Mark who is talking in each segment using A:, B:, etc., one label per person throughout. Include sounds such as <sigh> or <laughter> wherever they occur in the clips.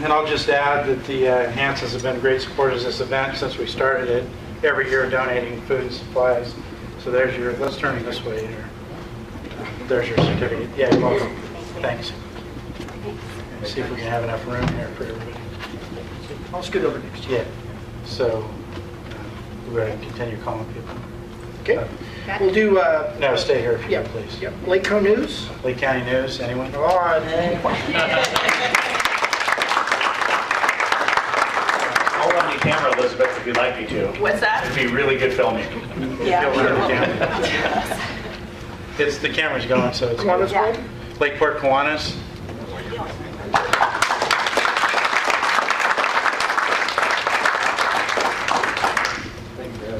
A: And I'll just add that the uh, Hansons have been great supporters of this event since we started it, every year donating food and supplies. So there's your, let's turn it this way here. There's your certificate. Yeah, you're welcome. Thanks. See if we can have enough room here for everybody.
B: I'll scoot over next to you.
A: Yeah, so uh, we're going to continue calling people.
B: Okay? We'll do, uh,
A: No, stay here if you
B: yeah,
A: would, please.
B: yeah, Lake Co News.
A: Lee County News, anyone? Oh,
B: All right.
C: I'll run the camera, Elizabeth, if you'd like me to.
D: What's that?
C: It'd be really good filming.
D: Yeah.
A: Go
B: <laughs>
A: around the It's, the camera's going, so it's.
B: Kiwanis
D: Yeah.
B: World.
A: Lakeport Kiwanis.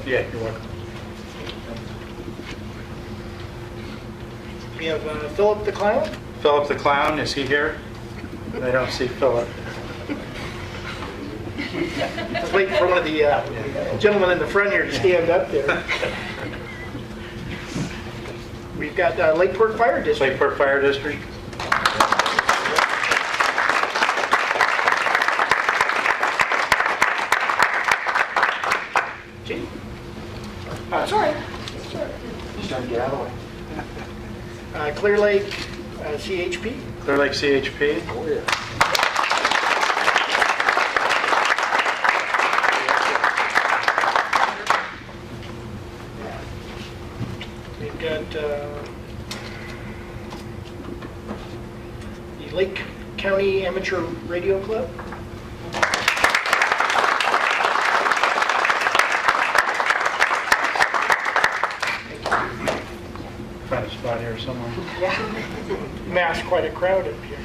A: Yeah, you're welcome.
B: We have uh, Philip the Clown.
A: Philip the Clown, is he here? I don't see Philip.
B: Let's wait for one of the uh, gentlemen in the front here to stand up there. We've got uh, Lakeport Fire District.
A: Lakeport Fire District.
B: Gee, uh, Clear Lake uh, CHP.
A: Clear Lake CHP.
B: We've got uh, the Lake County Amateur Radio Club.
A: Find a spot here somewhere.
B: Mass quite a crowd up here.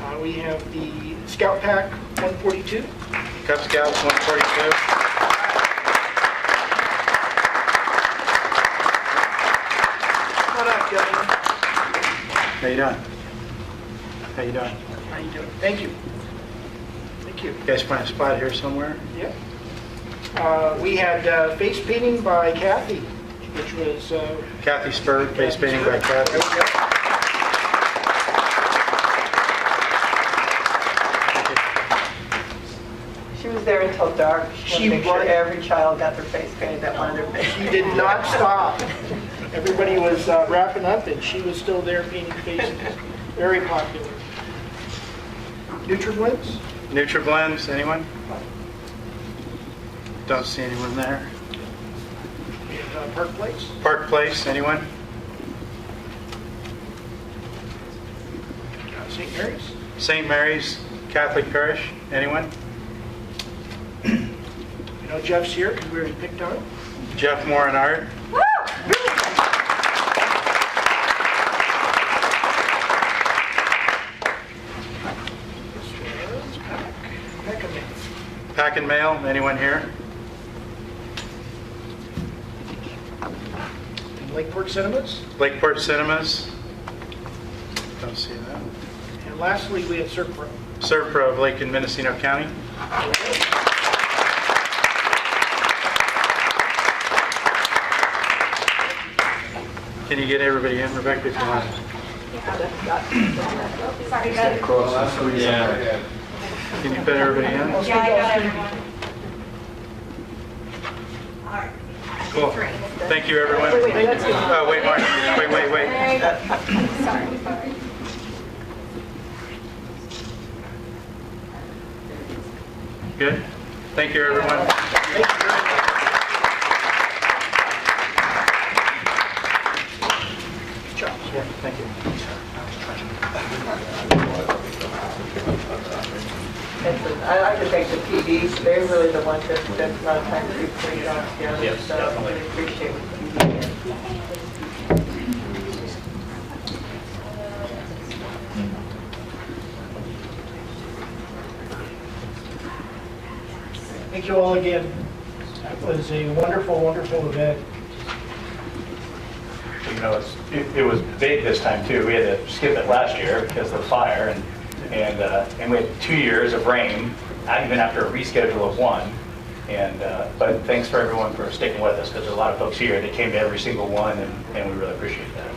B: Uh, We have the Scout Pack 142.
A: Cub Scouts 142.
B: What up, Governor?
A: How you doing? How you doing?
B: How you doing? Thank you. Thank you.
A: You guys find a spot here somewhere?
B: Yep. Uh, We had uh, face painting by Kathy, which was, uh,
A: Kathy Spur, face painting by Kathy.
E: She was there until dark.
B: She
E: She wanted to make sure
B: was.
E: every child got their face painted that wanted their face
B: she did not stop. Everybody was uh, wrapping up, and she was still there painting faces. Very popular. NutriBlends?
A: NutriBlends, anyone? Don't see anyone there.
B: We have, uh, Park Place?
A: Park Place, anyone?
B: uh, St. Mary's?
A: St. Mary's Catholic Parish, anyone?
B: You know Jeff's here because we were picked on. him.
A: Jeff Moore and Art,
B: This was Pac- Pac-A-Man.
A: Pack and Mail, anyone here?
B: Lakeport Cinemas.
A: Lakeport Cinemas? Don't see that.
B: And lastly, we had Serpro.
A: Serpro of uh, Lake and Mendocino County? Can you get everybody in, Rebecca, if you want? Can you fit everybody in?
F: Yeah, I got everyone. All right.
A: Cool. Thank you, everyone. Oh, wait, Mark, wait, wait, wait.
F: Sorry, sorry.
A: Good? Thank you, everyone.
B: Good job.
A: Yeah, thank you.
E: painted. I like to thank the PDs. They're really the ones that spent a lot of time to put it all together.
C: Yes,
E: So I
C: definitely.
E: really appreciate what you did.
B: Thank you all again. That was a wonderful, wonderful event.
C: You know, it's- it, it was big this time too. We had to skip it last year because of the fire and, and, uh, and we had two years of rain, not even after a reschedule of one. And, uh, but thanks for everyone for sticking with us because there's a lot of folks here that came to every single one and, and we really appreciate that.